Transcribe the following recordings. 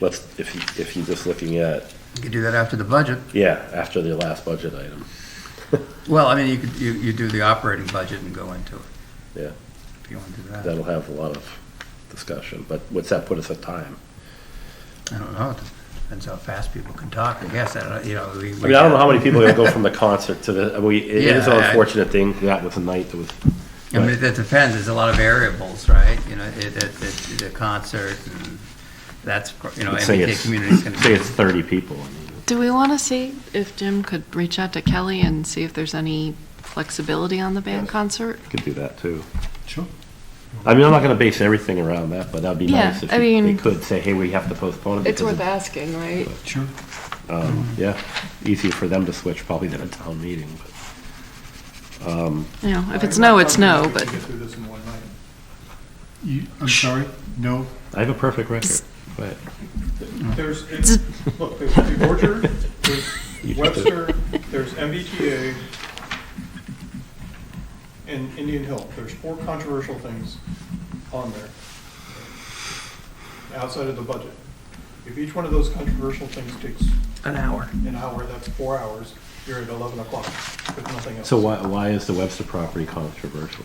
let's, if, you- if you're just looking at, You could do that after the budget. yeah, after the last budget item, Well, I mean, you could, you, you do the operating budget and go into it, yeah, if you want to do that. that'll have a lot of discussion, but what's that put us at time? I don't know, It depends how fast people can talk, I guess, I don't, you know, we. I mean, I don't know how many people are gonna go from the concert to the, we, it is an Yeah, I- unfortunate thing, that was a night that was, I mean, that depends, there's a lot of variables, right? You know, it, it, it- the concert, and that's, you know, say MBTA it's, community's gonna. say it's thirty people. I mean, Do we want to see if Jim could reach out to Kelly and see if there's any flexibility on the band concert? Could do that too. Sure. I mean, I'm not gonna base everything around that, but that'd be Yeah, nice if I you- they mean- could say, hey, we have to postpone it. It's because worth of- asking, right? Sure. Um, yeah, easier for them to switch probably than a town meeting, but. You know, if it's no, it's no, but You, I'm sorry, no, I have a perfect record, but There's, it's- look, there's the Orchard, there's Webster, there's MBTA, and Indian Hill. There's four controversial things on there outside of the budget. If each one of those controversial things takes An hour. an hour, that's four hours, you're at 11 o'clock with nothing else. so why why is the Webster property controversial?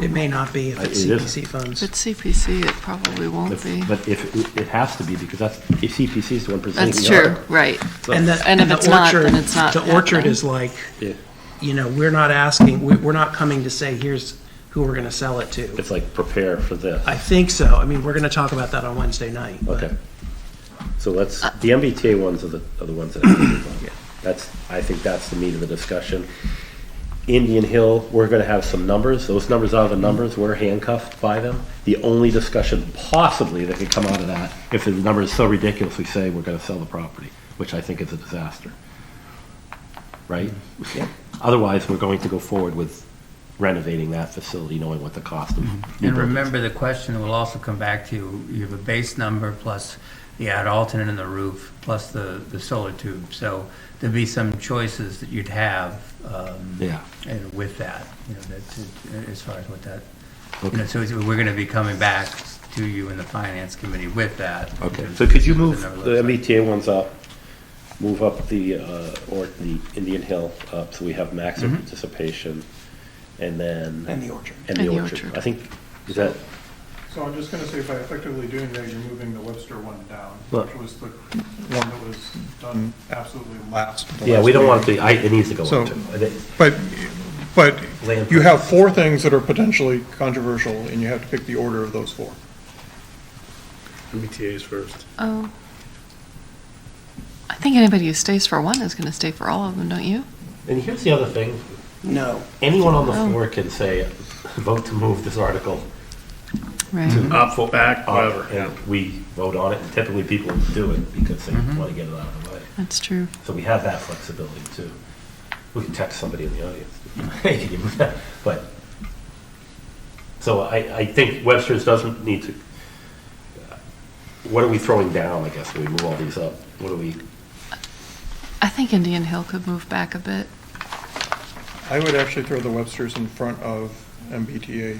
It may not be if Uh, it's it is. CPC if funds. it's CPC, it probably won't If- be. But if it, it has to be because that's if CPC is the one presenting That's the true, article. right. So- And the, And if the it's not, orchard- then it's not The orchard happening. is like, Yeah. you know, we're not asking, we, we're not coming to say, here's who we're gonna sell it to. It's like prepare for this. I think so. I mean, we're gonna talk about that on Wednesday night. but- Okay. So let's the MBTA ones are the are the ones that. I think about. That's I think that's the meat of the discussion. Indian Hill, we're going to have some numbers. Those numbers are the numbers. We're handcuffed by them. The only discussion possibly that could come out of that, if the number is so ridiculous, we say we're going to sell the property, which I think is a disaster. Right? Otherwise, we're going to go forward with renovating that facility, knowing what the cost of. new And buildings- remember, the question will also come back to you, you have a base number plus the add alternate in the roof, plus the, the solar tube. So there'd be some choices that you'd have, um, Yeah. and with that, you know, that, as far as what that, you Okay. know, so it's- we're gonna be coming back to you and the finance committee with that. Okay, in so terms could you of what move number the looks like. MBTA ones up, move up the, uh, or the Indian Hill up, so we have maximum participation, and then. And the orchard. And the orchard. I think, is that, So I'm just gonna say by effectively doing that, you're moving the Webster one down, Look. which was the one that was done absolutely last. the yeah, we last don't want meeting. the, I, it needs to go So- up too. I think- But, but Land you have four things that are potentially controversial, and you have to pick the order of those four. MBTA's first. Oh. I think anybody who stays for one is going to stay for all of them, don't you? And here's the other thing, No. anyone on the Oh. floor can say, vote to move this article Right. Up, foot back, up, whatever, yeah. and we vote on it, and typically people do it because they wanna get it out of the way. That's true. So we have that flexibility too. We can text somebody in the audience. Hey, can you move that? But, so I, I think Webster's doesn't need to, what are we throwing down, I guess, when we move all these up? What are we, I think Indian Hill could move back a bit. I would actually throw the Websters in front of MBTA.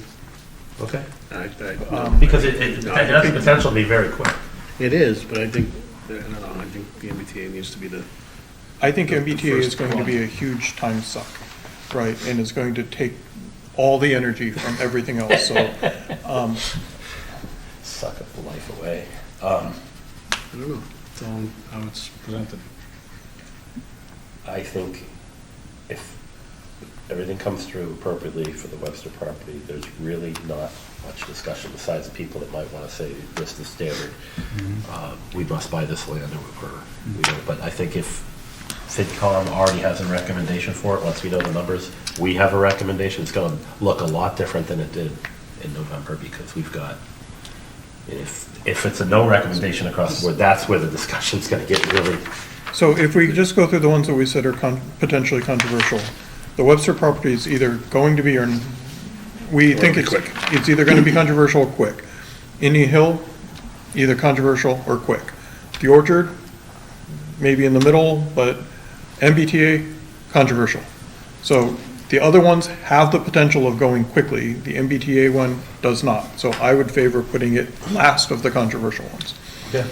okay? I- I- Um, Because it, it, it has the potential to be very quick. It is, but I think, I don't know, I think the MBTA needs to be the, I think The- the MBTA is first going to one. be a huge time suck, right, and it's going to take all the energy from everything else, so, um, Suck up the life away. Um, I don't know, it's all how it's presented. I think if everything comes through appropriately for the Webster property, there's really not much discussion besides the people that might want to say this is standard. Mm-hmm. Uh, We must buy this land or, or, we don't. but I think if FinCom already has a recommendation for it, once we know the numbers, we have a recommendation, it's going to look a lot different than it did in November because we've got, if, if it's a no recommendation across the board, that's where the discussion's going to get really, So if we just go through the ones that we said are con- potentially controversial, the Webster property is either going to be, or n- we think be it's, quick. it's either gonna be controversial or quick. Indian Hill, either controversial or quick. The Orchard, maybe in the middle, but MBTA, controversial. So the other ones have the potential of going quickly, the MBTA one does not. So I would favor putting it last of the controversial ones. Yeah.